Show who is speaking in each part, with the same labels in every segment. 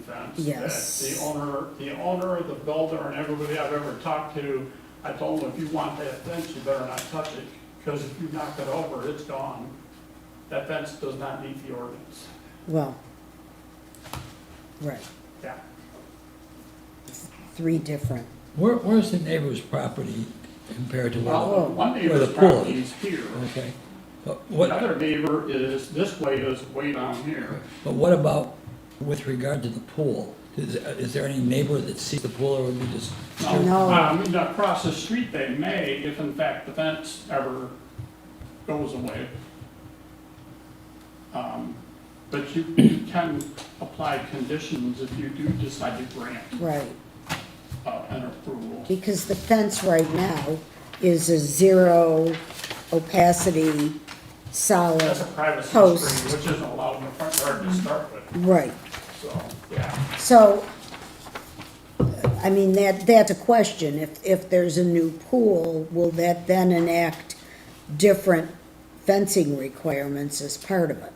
Speaker 1: fence.
Speaker 2: Yes.
Speaker 1: That The owner, the owner, the builder, and everybody I've ever talked to, I told them, if you want that fence, you better not touch it, because if you knock it over, it's gone. That fence does not meet the ordinance.
Speaker 2: Well, right,
Speaker 1: Yeah.
Speaker 2: three different,
Speaker 3: Where, where's the neighbor's property compared to the other?
Speaker 1: Well, one
Speaker 3: Where
Speaker 1: neighbor's
Speaker 3: the pool
Speaker 1: property is here.
Speaker 3: Okay, but what,
Speaker 1: Another neighbor is, this way is way down here.
Speaker 3: but what about with regard to the pool? Is, is there any neighbor that sees the pool or would you just?
Speaker 2: No.
Speaker 1: Um, and across the street they may, if in fact the fence ever goes away. Um, But you, you can apply conditions if you do decide to grant,
Speaker 2: right,
Speaker 1: uh, an approval.
Speaker 2: because the fence right now is a zero opacity
Speaker 1: That's a
Speaker 2: solid,
Speaker 1: privacy
Speaker 2: Post.
Speaker 1: screen, which isn't allowed in the front yard to start with,
Speaker 2: right.
Speaker 1: so, yeah.
Speaker 2: So, I mean, that, that's a question, if, if there's a new pool, will that then enact different fencing requirements as part of it?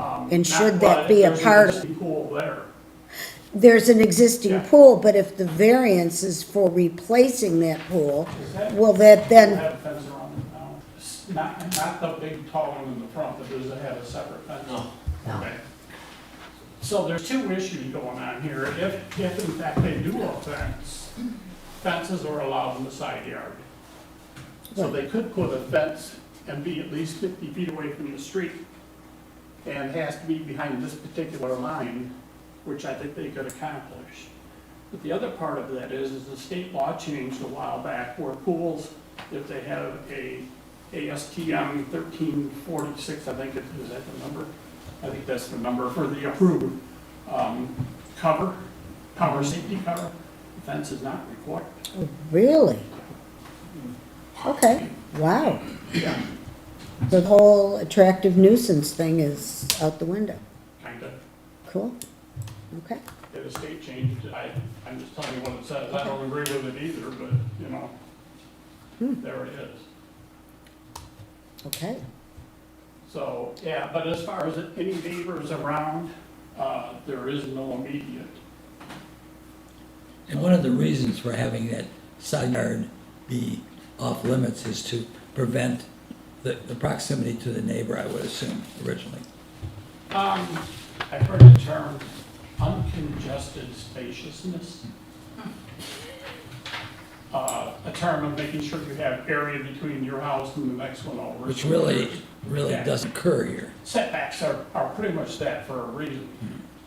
Speaker 1: Um,
Speaker 2: And
Speaker 1: not-
Speaker 2: should
Speaker 1: but
Speaker 2: that be a
Speaker 1: there's an
Speaker 2: part of-
Speaker 1: existing Pool there,
Speaker 2: There's an existing
Speaker 1: Yeah.
Speaker 2: pool, but if the variance is for replacing that pool,
Speaker 1: that-
Speaker 2: will that
Speaker 1: they
Speaker 2: then,
Speaker 1: have a fence around it now, It's not, not the big tall one in the front, but does it have a separate fence?
Speaker 4: No.
Speaker 1: Okay. So there's two issues going on here. If, if in fact they do a fence, fences are allowed in the side yard. So they could put a fence and be at least fifty feet away from the street. And has to be behind this particular line, which I think they could accomplish. But the other part of that is, is the state law changed a while back where pools, if they have a ASTM thirteen forty-six, I think it is that the number? I think that's the number for the approved, um, cover, cover, safety cover. Fence is not required.
Speaker 2: really? Okay, wow,
Speaker 1: Yeah,
Speaker 2: the whole attractive nuisance thing is out the window,
Speaker 1: kind of.
Speaker 2: cool, okay.
Speaker 1: Yeah, the state changed it. I, I'm just telling you what it says. I don't agree with it either, but, you know, there it is.
Speaker 2: Okay,
Speaker 1: So, yeah, but as far as any neighbors around, uh, there is no immediate.
Speaker 3: And one of the reasons for having that side yard be off limits is to prevent the, the proximity to the neighbor, I would assume, originally.
Speaker 1: Um, I've heard the term uncongested spaciousness. Uh, a term of making sure you have area between your house and the next one over.
Speaker 3: Which really, really
Speaker 1: Yeah.
Speaker 3: doesn't occur here.
Speaker 1: Setbacks are, are pretty much that for a reason,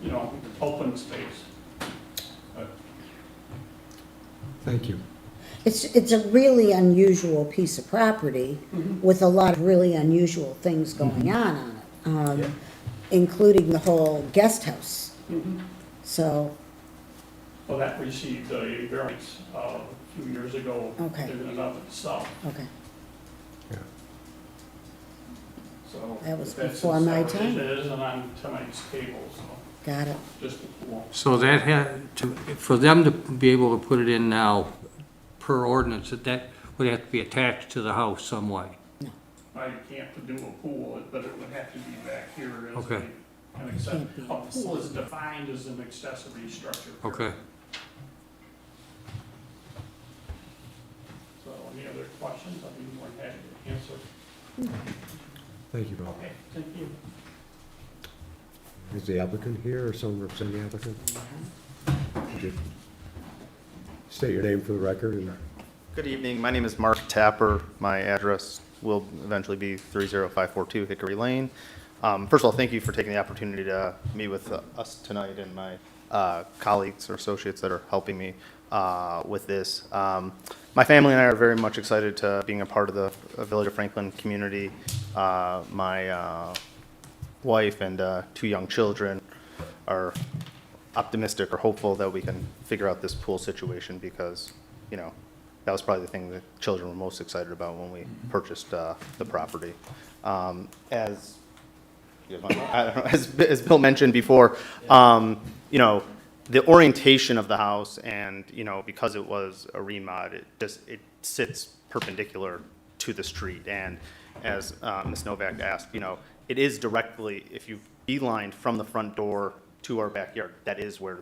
Speaker 1: you know, open space.
Speaker 5: Thank you.
Speaker 2: it's, it's a really unusual piece of property with a lot of really unusual things going on on it,
Speaker 1: Yeah.
Speaker 2: um, including the whole guest house, so,
Speaker 1: Well, that received a variance, uh, a few years ago.
Speaker 2: Okay.
Speaker 1: In and of itself,
Speaker 2: okay.
Speaker 1: so.
Speaker 2: That was
Speaker 1: that's as
Speaker 2: before
Speaker 1: far
Speaker 2: my
Speaker 1: as
Speaker 2: time.
Speaker 1: It is, and on tonight's table, so,
Speaker 2: Got it.
Speaker 1: just a pool.
Speaker 4: So that had, to, for them to be able to put it in now, per ordinance, that that would have to be attached to the house some way.
Speaker 1: I can't do a pool, but it would have to be back here as a,
Speaker 4: Okay.
Speaker 1: an accessory. A pool is defined as an accessory structure.
Speaker 4: Okay.
Speaker 1: So any other questions? I'd be more than happy to answer.
Speaker 5: Thank you, Bob.
Speaker 1: Okay, thank you.
Speaker 5: Is the applicant here or someone representing the applicant? Good. State your name for the record and
Speaker 6: Good evening, my name is Mark Tapper. My address will eventually be 30542 Hickory Lane. Um, First of all, thank you for taking the opportunity to meet with uh, us tonight and my uh, colleagues or associates that are helping me uh, with this. Um, My family and I are very much excited to being a part of the uh, Village of Franklin community. Uh, My uh, wife and uh, two young children are optimistic or hopeful that we can figure out this pool situation because, you know, that was probably the thing that children were most excited about when we purchased uh, the property. Um, As, I don't know, as, as Bill mentioned before, um, you know, the orientation of the house and, you know, because it was a remod, it just, it sits perpendicular to the street. And as uh, Ms. Novak asked, you know, it is directly, if you beeline from the front door to our backyard, that is where